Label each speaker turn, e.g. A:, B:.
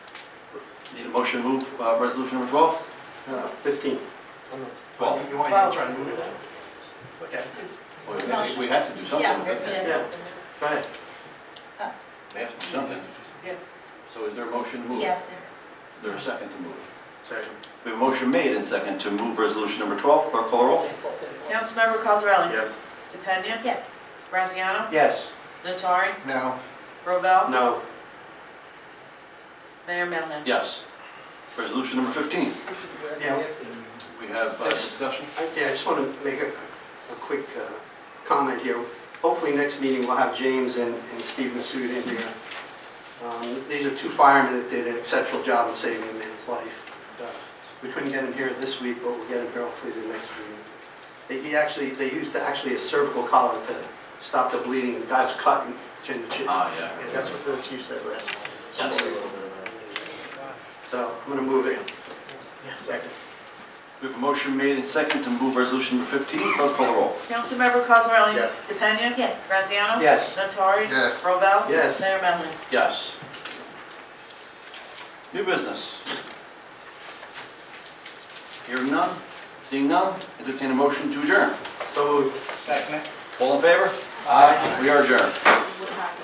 A: Need a motion to move uh, resolution number 12?
B: Uh, 15.
A: Well-
C: You want, you want to try to move it down? Okay,
A: Well, I think we have to do something
D: Yeah,
A: with it.
D: yes.
B: Yeah. Go ahead.
A: We have to do something.
D: Yeah.
A: So is there a motion to move?
D: Yes, there is.
A: Is there a second to move?
C: second.
A: We have a motion made and second to move resolution number 12. Clerk call the roll.
E: Councilmember Cosarelli?
C: Yes.
E: DePena?
D: Yes,
E: Graziano?
B: Yes.
E: Notari?
C: No,
E: Robel?
B: No.
E: Mayor Melham?
A: Yes. Resolution number 15.
B: Yeah,
A: We have uh, discussion.
B: I- yeah, I just want to make a, a quick uh, comment here. Hopefully, next meeting, we'll have James and and Steve Massoud in here. Um, These are two firemen that did an exceptional job in saving a man's life. And, uh, We couldn't get him here this week, but we'll get him here hopefully the next meeting. They- He actually, they used actually a cervical collar to stop the bleeding. The guy was cut and chin to chin.
A: Ah, yeah.
C: that's what the chief said last
B: So I'm going to move it.
C: Yeah, second.
A: We have a motion made and second to move resolution number 15. Clerk call the roll.
E: Councilmember Cosarelli?
C: Yes.
E: DePena?
D: yes.
E: Graziano?
B: Yes.
E: Notari?
C: Yes.
E: Robel?
B: Yes.
E: Mayor Melham?
A: Yes. New business. Hearing none, seeing none, entertain a motion to adjourn.
B: So moved.
C: Second.
A: All in favor? Aye. We are adjourned.